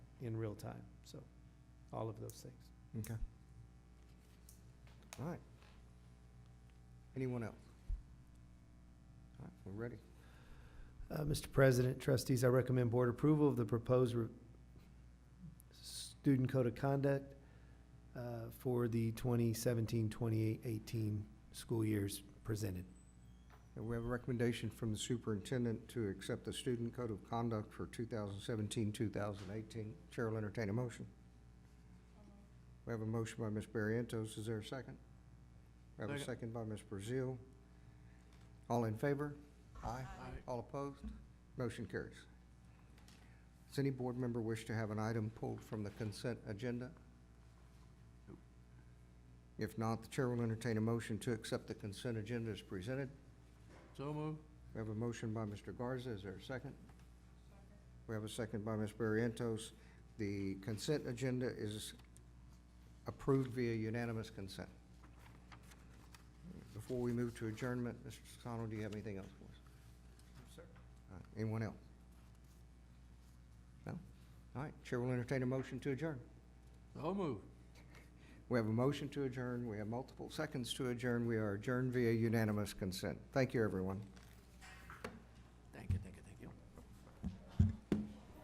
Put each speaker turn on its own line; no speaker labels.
in real time, so, all of those things.
Okay. All right. Anyone else? All right, we're ready.
Uh, Mr. President, trustees, I recommend board approval of the proposed re- student code of conduct uh, for the 2017, 2018 school years presented.
And we have a recommendation from the superintendent to accept the student code of conduct for 2017, 2018. Chair will entertain a motion. We have a motion by Ms. Barrientos. Is there a second? We have a second by Ms. Brazil. All in favor? Aye. All opposed? Motion carries. Does any board member wish to have an item pulled from the consent agenda? If not, the chair will entertain a motion to accept the consent agenda as presented.
So moved.
We have a motion by Mr. Garza. Is there a second? We have a second by Ms. Barrientos. The consent agenda is approved via unanimous consent. Before we move to adjournment, Mr. Sisano, do you have anything else for us? All right, Anyone else? No? All right, Chair will entertain a motion to adjourn.
So moved.
We have a motion to adjourn. We have multiple seconds to adjourn. We are adjourned via unanimous consent. Thank you, everyone.